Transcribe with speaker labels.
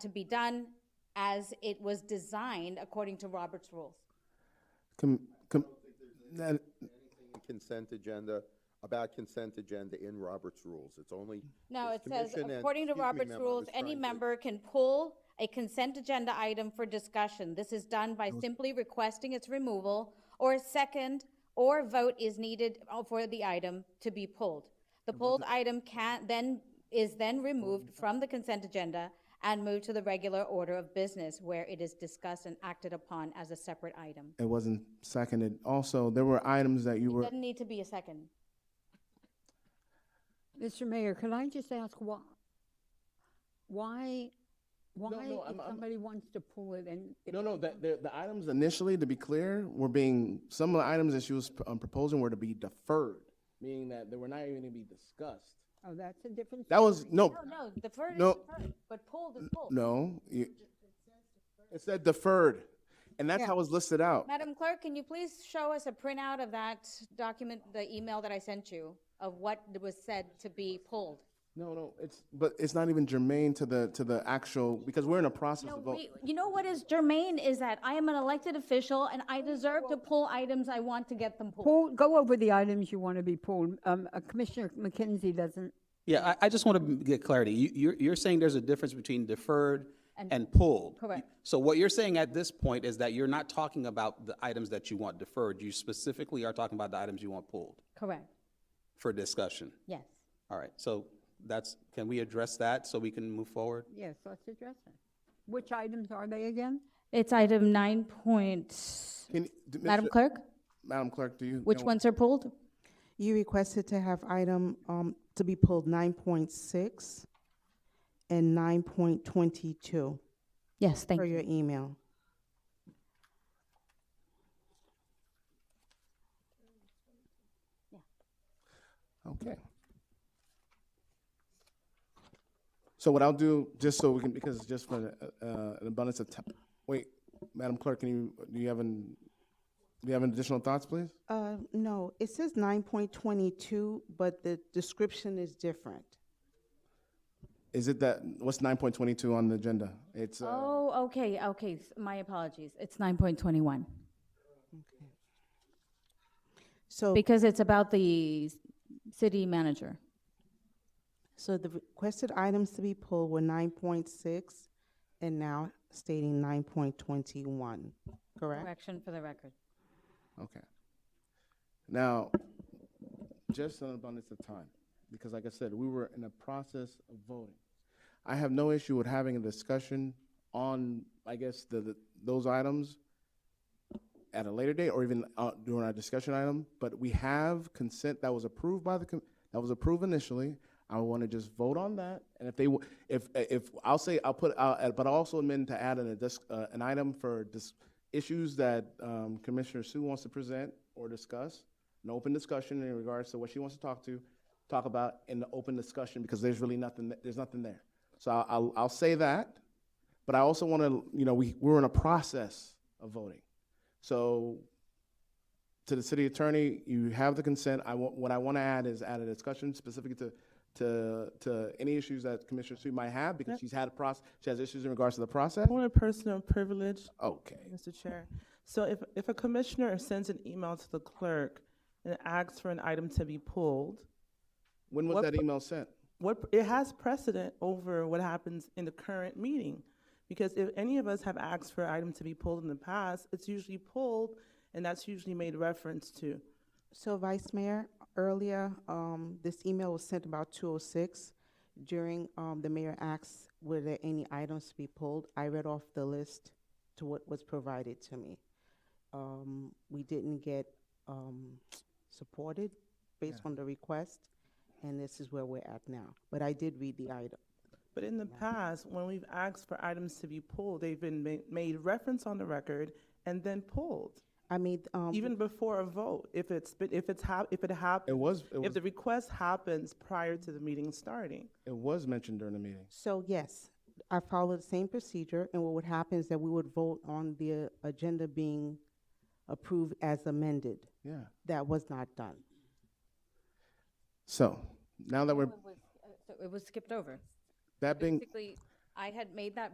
Speaker 1: to be done as it was designed according to Robert's rules.
Speaker 2: Com- com- that-
Speaker 3: consent agenda, about consent agenda in Robert's rules. It's only.
Speaker 1: No, it
Speaker 3: it's
Speaker 1: says,
Speaker 3: commission and-
Speaker 1: according to
Speaker 3: excuse me,
Speaker 1: Robert's
Speaker 3: ma'am, I
Speaker 1: rules,
Speaker 3: was
Speaker 1: any
Speaker 3: trying to-
Speaker 1: member can pull a consent agenda item for discussion. This is done by simply requesting its removal, or a second, or vote is needed for the item to be pulled. The pulled item can, then, is then removed from the consent agenda and moved to the regular order of business where it is discussed and acted upon as a separate item.
Speaker 2: It wasn't seconded. Also, there were items that you were,
Speaker 1: Doesn't need to be a second.
Speaker 4: Mr. Mayor, could I just ask why, why, why
Speaker 2: no,
Speaker 4: if
Speaker 2: I'm- I'm-
Speaker 4: somebody wants to pull it and? it-
Speaker 2: no, no, that, the, the items initially, to be clear, were being, some of the items that she was um, proposing were to be deferred, meaning that they were not even to be discussed.
Speaker 4: Oh, that's a different.
Speaker 2: That was, no,
Speaker 1: No, Oh, no, deferred is
Speaker 2: No.
Speaker 1: deferred, but pulled is pulled.
Speaker 2: no. you- It said deferred, and that's how it was listed out.
Speaker 1: Madam Clerk, can you please show us a printout of that document, the email that I sent you, of what was said to be pulled?
Speaker 2: No, no, it's, but it's not even germane to the, to the actual, because we're in a process of vote.
Speaker 1: Wait, You know what is germane is that I am an elected official and I deserve to pull items I want to get them pulled.
Speaker 4: Pull, go over the items you want to be pulled. Um, uh, Commissioner McKenzie doesn't.
Speaker 5: Yeah, I, I just want to get clarity. You, you're, you're saying there's a difference between deferred and pulled.
Speaker 1: Correct.
Speaker 5: So what you're saying at this point is that you're not talking about the items that you want deferred. You specifically are talking about the items you want pulled
Speaker 1: Correct,
Speaker 5: for discussion.
Speaker 1: yes.
Speaker 5: All right, so that's, can we address that so we can move forward?
Speaker 4: Yes, let's address it. Which items are they again?
Speaker 1: It's item nine point,
Speaker 2: Can, do-
Speaker 1: Madam
Speaker 2: Mr.
Speaker 1: Clerk,
Speaker 2: Madam Clerk, do you?
Speaker 1: which
Speaker 2: know-
Speaker 1: ones are pulled?
Speaker 6: You requested to have item, um, to be pulled nine point six and nine point twenty-two
Speaker 1: Yes, thank
Speaker 6: for
Speaker 1: you.
Speaker 6: your email.
Speaker 2: Okay. So what I'll do, just so we can, because just for uh, uh, an abundance of time, wait, Madam Clerk, can you, do you have an, do you have an additional thoughts, please?
Speaker 6: Uh, no, it says nine point twenty-two, but the description is different.
Speaker 2: Is it that, what's nine point twenty-two on the agenda? It's, uh,
Speaker 1: Oh, okay, okay, s- my apologies. It's nine point twenty-one.
Speaker 6: So,
Speaker 1: Because it's about the s- city manager.
Speaker 6: so the requested items to be pulled were nine point six and now stating nine point twenty-one, correct?
Speaker 1: Correction for the record.
Speaker 2: okay. Now, just an abundance of time, because like I said, we were in a process of voting. I have no issue with having a discussion on, I guess, the, the- those items at a later date or even uh, during our discussion item, but we have consent that was approved by the, com- that was approved initially. I want to just vote on that, and if they, w- if, if, I'll say, I'll put, uh, but I'll also amend to add an, a dis- uh, an item for dis- issues that um, Commissioner Sue wants to present or discuss, an open discussion in regards to what she wants to talk to, talk about in the open discussion, because there's really nothing, th- there's nothing there. So I'll- I'll, I'll say that, but I also want to, you know, we, we're in a process of voting. So to the city attorney, you have the consent. I want, what I want to add is add a discussion specific to, to, to any issues that Commissioner Sue might have because she's had a process, she has issues in regards to the process.
Speaker 7: Point of personal privilege,
Speaker 2: Okay.
Speaker 7: Mr. Chair. So if, if a commissioner sends an email to the clerk and asks for an item to be pulled,
Speaker 2: When was
Speaker 7: What
Speaker 2: that
Speaker 7: pro-
Speaker 2: email sent?
Speaker 7: what, it has precedent over what happens in the current meeting. Because if any of us have asked for an item to be pulled in the past, it's usually pulled, and that's usually made reference to.
Speaker 6: So Vice Mayor, earlier, um, this email was sent about two oh six. During, um, the mayor asked, were there any items to be pulled? I read off the list to what was provided to me. Um, we didn't get, um, supported based on the request, and this is where we're at now. But I did read the item.
Speaker 7: But in the past, when we've asked for items to be pulled, they've been ma- made reference on the record and then pulled.
Speaker 6: I made, um,
Speaker 7: even before a vote, if it's, but if it's hap, if it
Speaker 2: It
Speaker 7: happens.
Speaker 2: was- it was-
Speaker 7: If the request happens prior to the meeting starting.
Speaker 2: It was mentioned during the meeting.
Speaker 6: So yes, I followed the same procedure, and what would happen is that we would vote on the uh, agenda being approved as amended.
Speaker 2: Yeah.
Speaker 6: That was not done.
Speaker 2: So now that we're,
Speaker 1: uh, It was skipped over.
Speaker 2: that being,
Speaker 1: Basically, I had made that